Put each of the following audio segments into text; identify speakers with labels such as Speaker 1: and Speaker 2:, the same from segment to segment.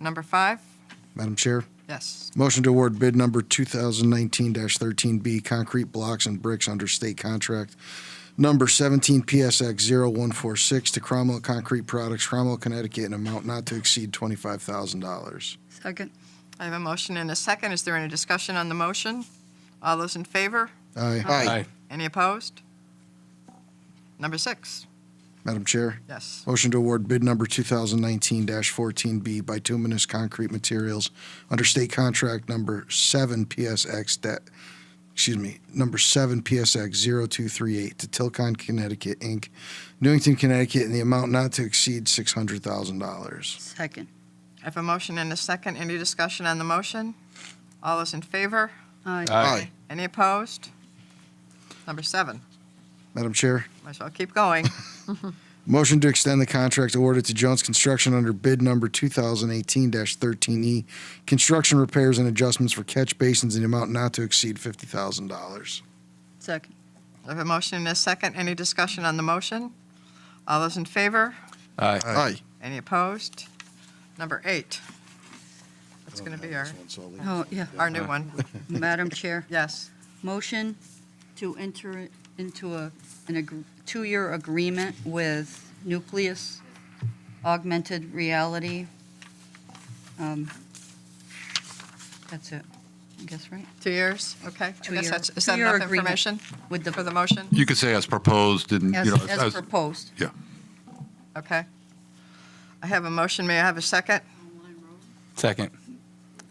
Speaker 1: Number five?
Speaker 2: Madam Chair,
Speaker 1: Yes.
Speaker 2: motion to award bid number 2019-13B, concrete blocks and bricks under state contract number 17 PSX 0146 to Cromwell Concrete Products, Cromwell, Connecticut, in amount not to exceed $25,000.
Speaker 3: Second.
Speaker 1: I have a motion and a second. Is there any discussion on the motion? All those in favor?
Speaker 2: Aye.
Speaker 4: Aye.
Speaker 1: Any opposed? Number six?
Speaker 2: Madam Chair,
Speaker 1: Yes.
Speaker 2: motion to award bid number 2019-14B, bituminous concrete materials under state contract number 7 PSX, da- excuse me, number 7 PSX 0238 to Tilcon, Connecticut, Inc., Newington, Connecticut, in the amount not to exceed $600,000.
Speaker 3: Second.
Speaker 1: I have a motion and a second. Any discussion on the motion? All those in favor?
Speaker 3: Aye.
Speaker 2: Aye.
Speaker 1: Any opposed? Number seven?
Speaker 2: Madam Chair,
Speaker 1: Might as well keep going.
Speaker 2: Motion to extend the contract awarded to Jones Construction under bid number 2018-13E, E, construction repairs and adjustments for catch basins in the amount not to exceed $50,000.
Speaker 3: Second.
Speaker 1: I have a motion and a second. Any discussion on the motion? All those in favor?
Speaker 4: Aye.
Speaker 2: Aye.
Speaker 1: Any opposed? Number eight? That's going to be our,
Speaker 3: Oh, yeah.
Speaker 1: our new one.
Speaker 3: Madam Chair,
Speaker 1: Yes.
Speaker 3: motion to enter into a, an, ag- two-year agreement with Nucleus Augmented Reality. Um, That's it, I guess, right?
Speaker 1: Two years? Okay. I
Speaker 3: Two
Speaker 1: guess
Speaker 3: year-
Speaker 1: that's, is that
Speaker 3: two-year
Speaker 1: enough
Speaker 3: agreement.
Speaker 1: information
Speaker 3: With
Speaker 1: for the
Speaker 3: the,
Speaker 1: motion?
Speaker 4: You could say as proposed, didn't, you
Speaker 3: as,
Speaker 4: know,
Speaker 3: as
Speaker 4: as-
Speaker 3: proposed.
Speaker 1: Okay. I have a motion. May I have a second?
Speaker 4: second.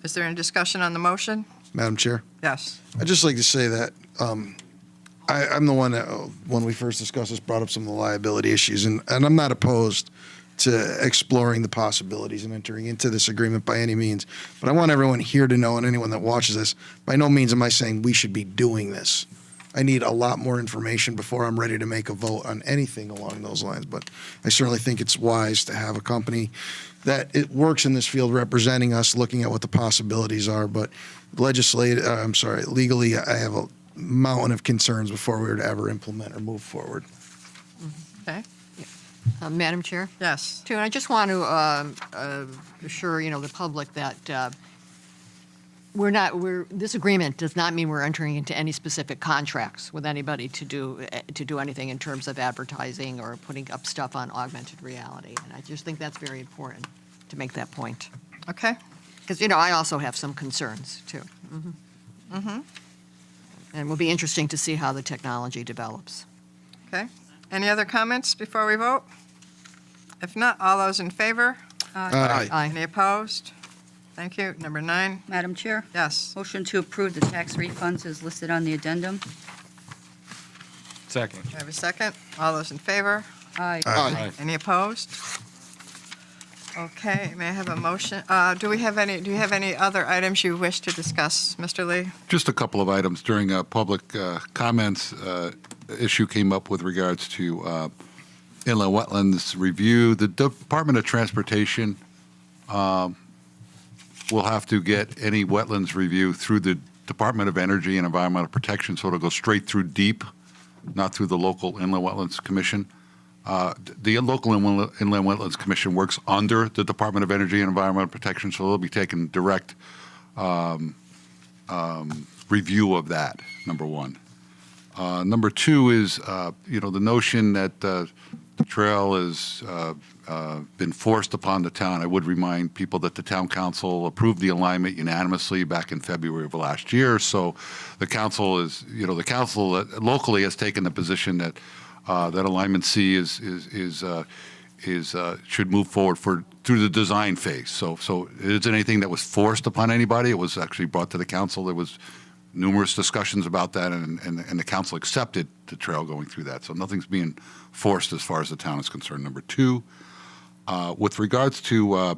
Speaker 1: Is there any discussion on the motion?
Speaker 2: Madam Chair,
Speaker 1: Yes.
Speaker 2: I'd just like to say that um, I, I'm the one that, uh, when we first discussed this, brought up some of the liability issues, and, and I'm not opposed to exploring the possibilities and entering into this agreement by any means. But I want everyone here to know, and anyone that watches this, by no means am I saying we should be doing this. I need a lot more information before I'm ready to make a vote on anything along those lines. But I certainly think it's wise to have a company that it works in this field representing us, looking at what the possibilities are. But legislate, uh, I'm sorry, legally, I have a mountain of concerns before we were to ever implement or move forward.
Speaker 1: Okay.
Speaker 5: Uh, Madam Chair,
Speaker 1: Yes.
Speaker 5: too, and I just want to um, uh, assure, you know, the public that uh, we're not, we're, this agreement does not mean we're entering into any specific contracts with anybody to do, eh, to do anything in terms of advertising or putting up stuff on augmented reality. And I just think that's very important to make that point.
Speaker 1: Okay.
Speaker 5: Because, you know, I also have some concerns, too. Mm-hmm. And it will be interesting to see how the technology develops.
Speaker 1: Okay. Any other comments before we vote? If not, all those in favor?
Speaker 5: Aye.
Speaker 1: Any opposed? Thank you. Number nine?
Speaker 3: Madam Chair,
Speaker 1: Yes.
Speaker 3: motion to approve the tax refunds is listed on the addendum.
Speaker 4: Second.
Speaker 1: I have a second. All those in favor?
Speaker 3: Aye.
Speaker 4: Aye.
Speaker 1: Any opposed? Okay, may I have a motion? Uh, Do we have any, do you have any other items you wish to discuss, Mr. Lee?
Speaker 4: Just a couple of items during uh, public uh, comments. uh, Issue came up with regards to uh, inland wetlands review. The Department of Transportation um, will have to get any wetlands review through the Department of Energy and Environmental Protection, so it'll go straight through DEEP, not through the local inland wetlands commission. Uh, The local inland Inland wetlands commission works under the Department of Energy and Environmental Protection, so they'll be taking direct review of that, number one. Uh, number two is, uh, you know, the notion that uh, the trail has uh, uh, been forced upon the town. I would remind people that the town council approved the alignment unanimously back in February of last year. So the council is, you know, the council uh, locally has taken the position that uh, that alignment C is is is. Uh, is uh, should move forward for through the design phase. So, so it isn't anything that was forced upon anybody. It was actually brought to the council. There was numerous discussions about that, and, and, and the council accepted the trail going through that. So nothing's being forced as far as the town is concerned. Number two, uh, with regards to uh,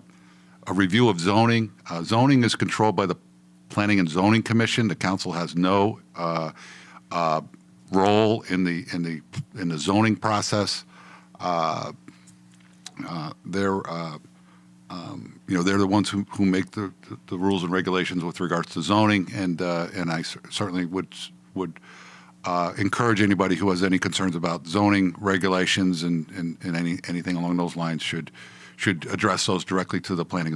Speaker 4: a review of zoning, uh, zoning is controlled by the Planning and Zoning Commission. The council has no uh, uh, role in the in the in the zoning process. Uh, uh, they're uh, um, you know, they're the ones who, who make the, the rules and regulations with regards to zoning, and, uh, and I cer- certainly would, would uh, encourage anybody who has any concerns about zoning regulations and, and, and any, anything along those lines should, should address those directly to the planning